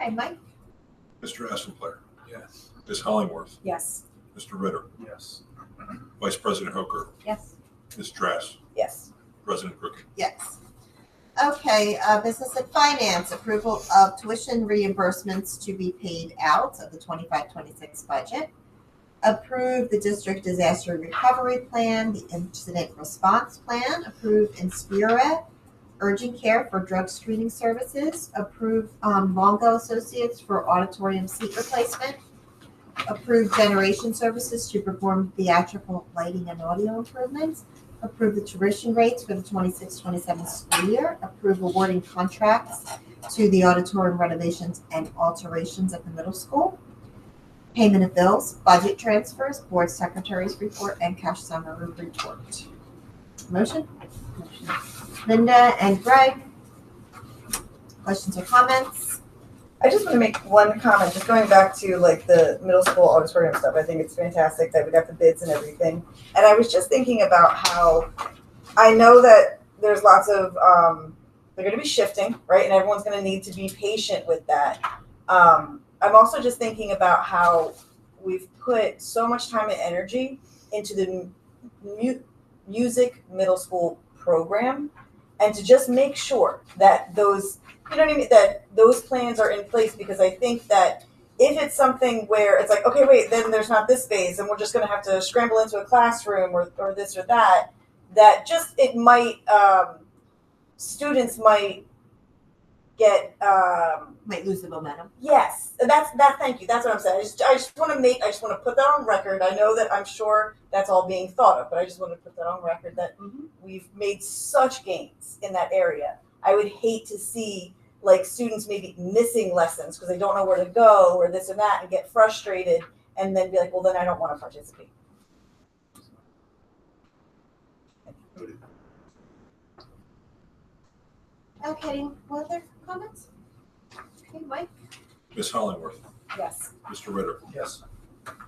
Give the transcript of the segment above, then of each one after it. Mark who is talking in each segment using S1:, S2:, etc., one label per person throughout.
S1: Okay, Mike?
S2: Mr. Essenpler,
S3: Yes.
S2: Ms. Hollingworth,
S1: Yes.
S2: Mr. Ritter,
S3: Yes.
S2: Vice President Hooker,
S1: Yes.
S2: Ms. Dress,
S1: Yes.
S2: President Crooked.
S1: Yes. Okay, uh, business and finance, approval of tuition reimbursements to be paid out of the 25-26 budget. Approve the district disaster recovery plan, the incident response plan, approve Inspira urgent care for drug screening services, approve, um, Longo Associates for auditorium seat replacement, approve generation services to perform theatrical lighting and audio improvements, Approve the tuition rates for the 26-27 school year. Approve awarding contracts to the auditorium renovations and alterations at the middle school. Payment of bills, budget transfers, board secretary's report, and cash summary report. Motion? Linda and Greg. Questions or comments?
S4: I just want to make one comment, just going back to like the middle school auditorium stuff. I think it's fantastic that we got the bids and everything. And I was just thinking about how I know that there's lots of um, they're going to be shifting, right? And everyone's going to need to be patient with that. Um, I'm also just thinking about how we've put so much time and energy into the mu- mu- music middle school program, and to just make sure that those you know what I mean? That those plans are in place because I think that if it's something where it's like, okay, wait, then there's not this space and we're just going to have to scramble into a classroom or, or this or that, that just it might, um, students might get, um,
S1: Might lose the momentum.
S4: Yes, that's that. Thank you. That's what I'm saying. I just, I just want to make. I just want to put that on record. I know that I'm sure that's all being thought of, but I just want to put that on record that
S1: Mhm.
S4: we've made such gains in that area. I would hate to see like students maybe missing lessons because they don't know where to go or this and that and get frustrated and then be like, well, then I don't want to participate.
S1: Okay, what other comments? Okay, Mike?
S2: Ms. Hollingworth,
S4: Yes.
S2: Mr. Ritter,
S3: Yes.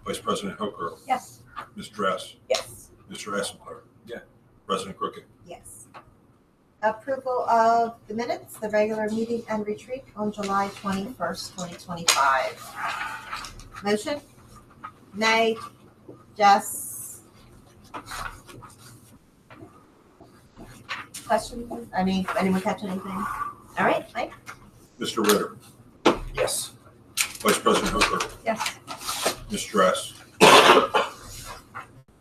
S2: Vice President Hooker,
S1: Yes.
S2: Ms. Dress,
S4: Yes.
S2: Mr. Essenpler,
S3: Yeah.
S2: President Crooked.
S1: Yes. Approval of the minutes, the regular meeting and retreat on July twenty-first, twenty twenty-five. Motion? Nay. Jess? Questions? Any, anyone catch anything? All right, Mike?
S2: Mr. Ritter,
S3: Yes.
S2: Vice President Hooker,
S1: Yes.
S2: Ms. Dress.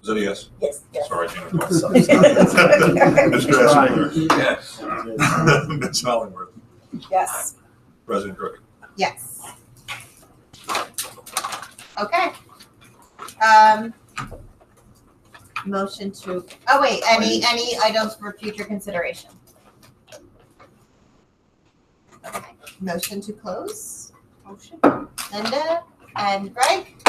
S2: Is that a yes?
S4: Yes. Yes.
S2: Sorry, Jennifer. Mr.
S4: Yes.
S2: Essenpler,
S3: Yes.
S2: Ms. Hollingworth,
S4: yes.
S2: President Crooked.
S1: Yes. Okay. Um. Motion to, oh wait, any, any items for future consideration? Okay, motion to close. Motion. Linda and Greg,